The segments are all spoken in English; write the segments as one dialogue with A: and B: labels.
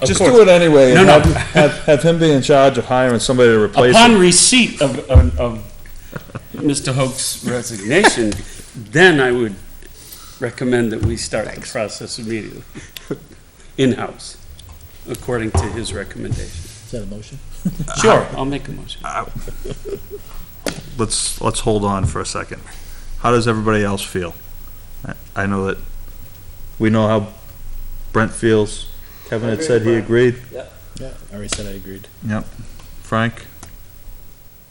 A: Of
B: Just
A: course.
B: do it anyway and
A: No, no.
B: have, have, have him be in charge of hiring somebody to replace
A: Upon
B: it.
A: receipt of, of, of Mr. Hope's resignation, then I would recommend that we start the process immediately, in-house, according to his recommendation.
C: Is that a motion?
A: Sure, I'll make a motion.
B: Let's, let's hold on for a second. How does everybody else feel? I, I know that, we know how Brent feels. Kevin had said he agreed.
C: Yeah, I already said I agreed.
B: Frank?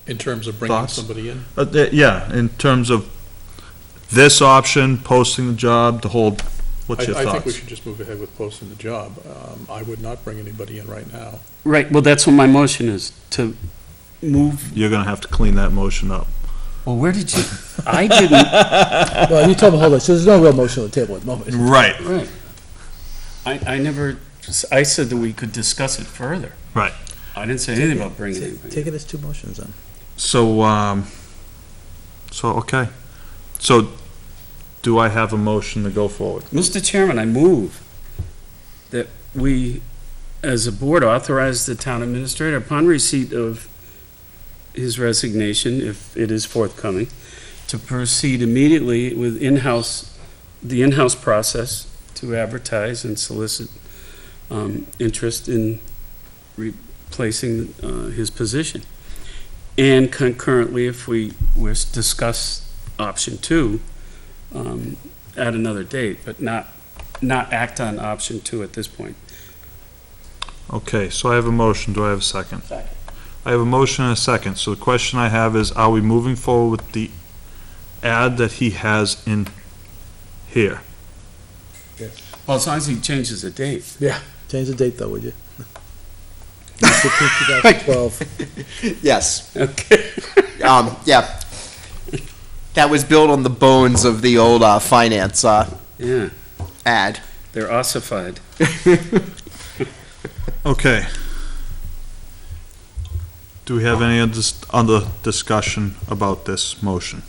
D: In terms of bringing
B: Thoughts?
D: somebody in?
B: Uh, th- yeah, in terms of this option, posting the job, the whole,
D: I,
B: what's your
D: I think we
B: thoughts?
D: should just move ahead with posting the job. Um, I would not bring anybody in right now.
A: Right, well, that's what my motion is, to move,
B: You're gonna have to clean that motion up.
A: well, where did you, I didn't,
C: Well, you told me, hold on, so there's no real motion on the table at the moment.
B: Right,
A: right. I, I never, I said that we could discuss it further.
B: Right.
A: I didn't say anything about bringing anybody.
C: Take it as two motions then.
B: so, um, so, okay. So, do I have a motion to go forward?
A: Mr. Chairman, I move that we, as a board, authorize the town administrator upon receipt of his resignation, if it is forthcoming, to proceed immediately with in-house, the in-house process to advertise and solicit um, interest in replacing uh, his position. And concurrently, if we wish, discuss option two, um, at another date, but not, not act on option two at this point.
B: Okay, so I have a motion, do I have a second?
A: Second.
B: I have a motion and a second, so the question I have is, are we moving forward with the ad that he has in here?
A: Well, as long as he changes the date.
C: Change the date though, would you? 2012.
E: Yes.
A: Okay.
E: Um, yeah. That was built on the bones of the old uh, finance uh,
A: Yeah,
E: ad.
A: they're ossified.
B: Okay. Do we have any other, other discussion about this motion?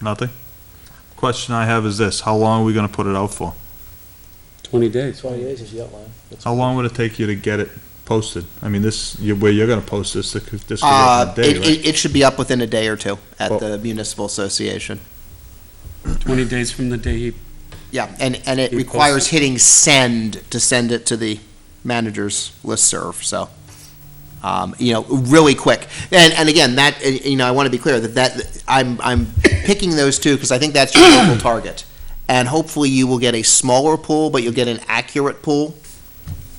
B: Nothing? Question I have is this, how long are we gonna put it out for?
A: Twenty days.
C: Twenty days is the outline.
B: How long would it take you to get it posted? I mean, this, you- where you're gonna post this, this could this could
E: Uh,
B: happen today,
E: it,
B: right?
E: it, it should be up within a day or two at
B: Well-
E: the municipal association.
A: Twenty days from the day he,
E: Yeah, and, and it
A: You
E: requires
A: post
E: hitting send to send it to the manager's listserv, so. Um, you know, really quick. And, and again, that, uh, you know, I want to be clear that that, I'm, I'm picking those two because I think that's your local target. And hopefully you will get a smaller pool, but you'll get an accurate pool.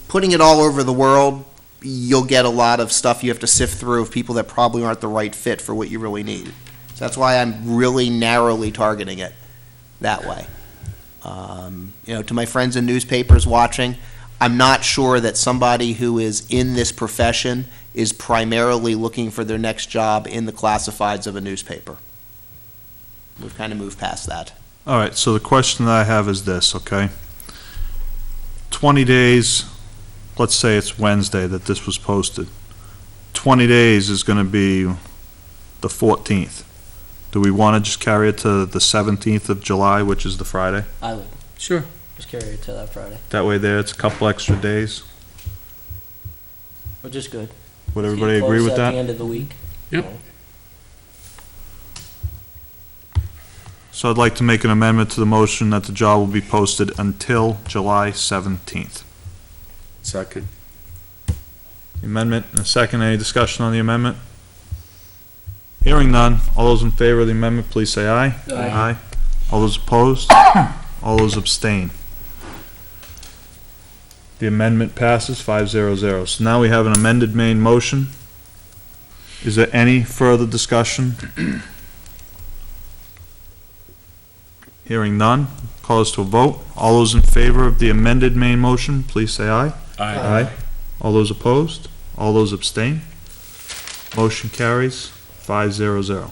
E: Putting it all over the world, you'll get a lot of stuff you have to sift through of people that probably aren't the right fit for what you really need. So that's why I'm really narrowly targeting it that way. Um, you know, to my friends in newspapers watching, I'm not sure that somebody who is in this profession is primarily looking for their next job in the classifieds of a newspaper. We've kind of moved past that.
B: All right, so the question that I have is this, okay? Twenty days, let's say it's Wednesday that this was posted. Twenty days is gonna be the fourteenth. Do we wanna just carry it to the seventeenth of July, which is the Friday?
F: I would
A: sure.
F: just carry it to that Friday,
B: That way there, it's a couple extra days.
F: which is good.
B: Would
F: So you
B: everybody agree
F: close
B: with
F: at the
B: that?
F: end of the week.
A: Yep.
B: So I'd like to make an amendment to the motion that the job will be posted until July seventeenth.
A: Second.
B: Amendment and a second. Any discussion on the amendment? Hearing none. All those in favor of the amendment, please say aye.
F: Aye.
B: All those opposed? All those abstain? The amendment passes five zero zero. So now we have an amended main motion. Is there any further discussion? Hearing none. Call us to a vote. All those in favor of the amended main motion, please say aye. Aye. All those opposed? All those abstain? Motion carries five zero zero.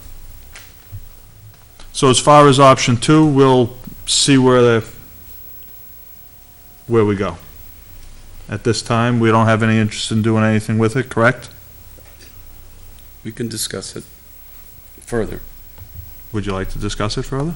B: So as far as option two, we'll see where the, where we go. At this time, we don't have any interest in doing anything with it, correct?
A: We can discuss it further.
B: Would you like to discuss it further?